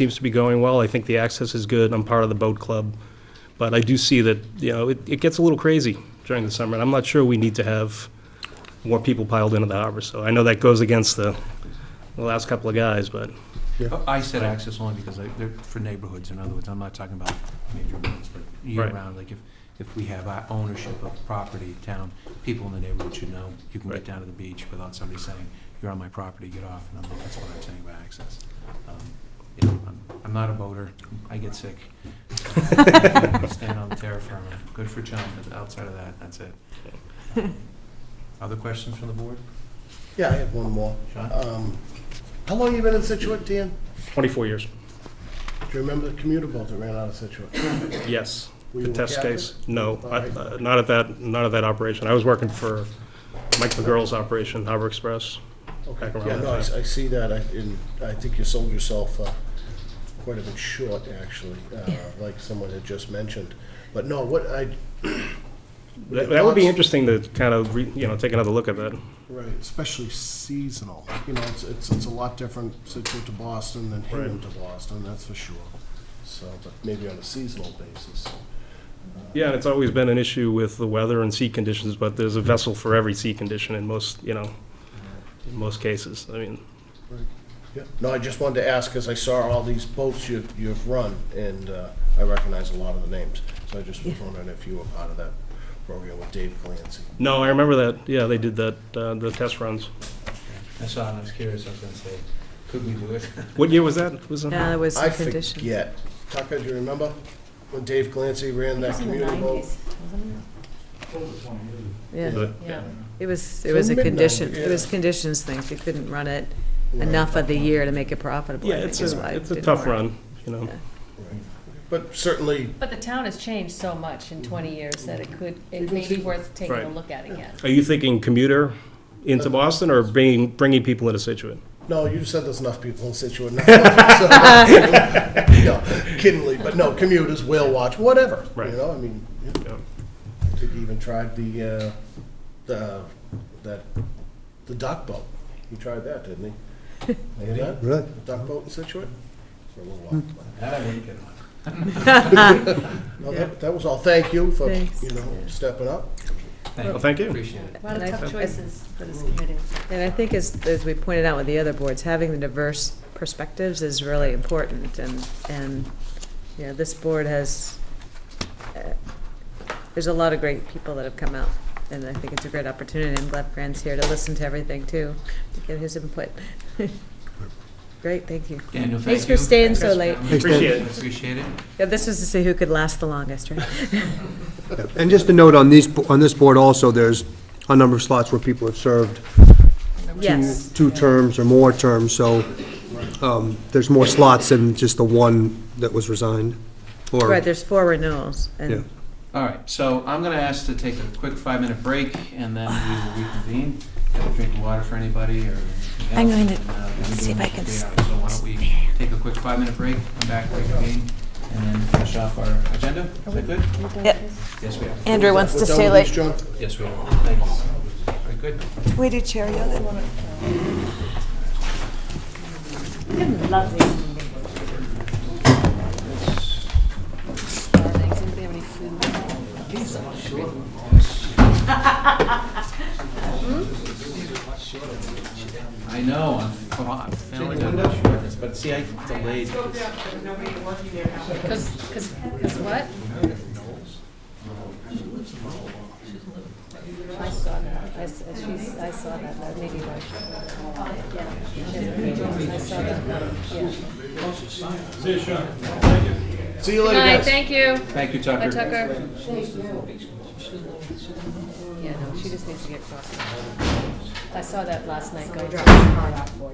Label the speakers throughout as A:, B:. A: seems to be going well. I think the access is good. I'm part of the boat club. But I do see that, you know, it, it gets a little crazy during the summer, and I'm not sure we need to have more people piled into the harbor. So I know that goes against the, the last couple of guys, but
B: Oh, I said access only because I- they're for neighborhoods, in other words, I'm not talking about major roads, but
A: Right.
B: year-round, like if, if we have our ownership of property, town, people in the neighborhood should know, you can
A: Right.
B: get down to the beach without somebody saying, you're on my property, get off, and I'm- that's what I'm saying about access. Um, You know, I'm, I'm not a boater, I get sick. Stand on terra firma, good for John, but outside of that, that's it. Other questions from the board?
C: Yeah, I have one more.
B: Sean?
C: Um, How long you been in Situate, Dan?
A: 24 years.
C: Do you remember the commuter boat that ran out of Situate?
A: Yes.
C: Were
A: The
C: you a
A: test
C: captain?
A: case? No,
C: All
A: I-
C: right.
A: uh, not at that, not at that operation. I was working for Mike McGurl's operation, Harbor Express.
C: Okay.
A: Back around
C: Yeah,
A: the
C: no, I
A: time.
C: I see that, I, and I think you sold yourself uh, quite a bit short, actually, uh, like someone had just mentioned. But no, what I,
A: That that would be
C: Thoughts?
A: interesting to kind of, re- you know, take another look at that.
C: right, especially seasonal, you know, it's, it's, it's a lot different Situate to Boston than Hingham to Boston, that's for sure. So, but maybe on a seasonal basis.
A: Yeah, and it's always been an issue with the weather and sea conditions, but there's a vessel for every sea condition in most, you know, in most cases. I mean,
C: Yeah. No, I just wanted to ask, because I saw all these boats you, you've run, and uh, I recognize a lot of the names. So I just was wondering if you were part of that program with Dave Clancy.
A: no, I remember that, yeah, they did that, uh, the test runs.
B: I saw, and I was curious, I was gonna say, could we do it?
A: What year was that? Was it?
D: Yeah, that was
C: I
D: the condition.
C: forget. Tucker, do you remember when Dave Clancy ran that community boat?
D: Yeah,
A: The-
E: Yeah.
D: it was,
C: It
D: it was
C: was
D: a
C: midnight,
D: condition,
C: yeah.
D: it was conditions things, you couldn't run it enough of the year to make it profitable,
A: Yeah,
D: I
A: it's
D: think is why
A: a,
D: it
A: it's a
D: didn't
A: tough
D: work.
A: run, you know.
C: But certainly,
E: But the town has changed so much in 20 years that it could, it may be worth taking a
A: Right.
E: look at again.
A: Are you thinking commuter into Boston or bringing, bringing people into Situate?
C: no, you said there's enough people in Situate now. So, No, kiddingly, but no, commuters, whale watch, whatever,
A: Right.
C: you know, I mean, yeah.
A: Yeah.
C: I think he even tried the, uh, the, that, the dock boat. He tried that, didn't he? Did he?
F: Really?
C: The dock boat in Situate? For a little while.
B: That I wouldn't get on.
C: No, that, that was all. Thank you for,
D: Thanks.
C: you know, stepping up.
A: Well, thank you.
B: Appreciate it.
E: A lot of
D: And I-
E: tough choices for this committee.
D: And I think as, as we pointed out with the other boards, having the diverse perspectives is really important, and, and, you know, this board has, uh, there's a lot of great people that have come out, and I think it's a great opportunity, I'm glad Fran's here to listen to everything too, to get his input. Great, thank you.
B: Daniel, thank
D: Thanks for
B: you.
D: staying so late.
A: Appreciate it.
B: Appreciate it.
D: Yeah, this was to see who could last the longest, right?
F: And just a note on these, on this board also, there's a number of slots where people have served
D: Yes.
F: two terms or more terms, so um, there's more slots than just the one that was resigned. or-
D: Right, there's four renewals,
F: Yeah.
D: and
B: All right, so I'm going to ask to take a quick five-minute break, and then we will reconvene. Have a drink of water for anybody or anything else.
G: I'm going to
B: and, uh, we'll be
G: see if
B: doing
G: I can
B: this for three hours. So why don't we take a quick five-minute break, come back, reconvene, and then finish off our agenda? Is that good?
G: Yep.
B: Yes, we are.
G: Andrew wants to
C: We're done
G: stay
C: with
G: late.
C: this, John?
B: Yes, we are. Thanks. Very good.
G: We did Cheerio then.
E: Does anybody have any food?
B: I know, I'm fa- I'm failing on my shortness, but see, I delayed this.
E: Because, because, because what? I saw that, I, s- she's, I saw that, that maybe why she- yeah. She has a meeting. I saw that, yeah.
C: See you
E: Good
C: later,
E: night,
C: guys.
E: thank you.
B: Thank you,
E: Bye, Tucker. Yeah, no, she just needs to get crossed. I saw that last night going.
B: Oh,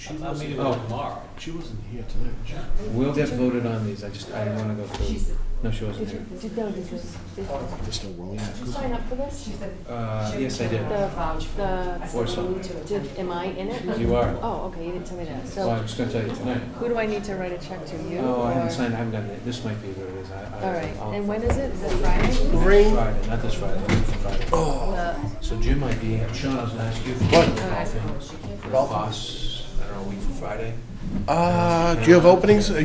B: tomorrow.
C: She wasn't here tonight. was she?
B: We'll get voted on these, I just, I didn't wanna go through, no, she wasn't here.
C: Mr. Williams.
E: Sign up for this?
B: Uh, yes, I did.
E: vouch,
B: Or something.
E: did, am I in it?
B: You are.
E: Oh, okay, you didn't tell me that.
B: Well, I
E: So
B: was gonna tell you tonight.
E: who do I need to write a check to, you?
B: Oh, I
E: or-
B: haven't signed, I haven't gotten it, this might be what it is, I, I.
E: All right,
B: I'll-
E: and when is it? Is it Friday?
C: Green.
B: Friday, not this Friday, Friday. Oh. So Jim might be, Sean, I was gonna ask you. What? Boss, I don't know, a week from Friday.
C: Uh, do you have openings?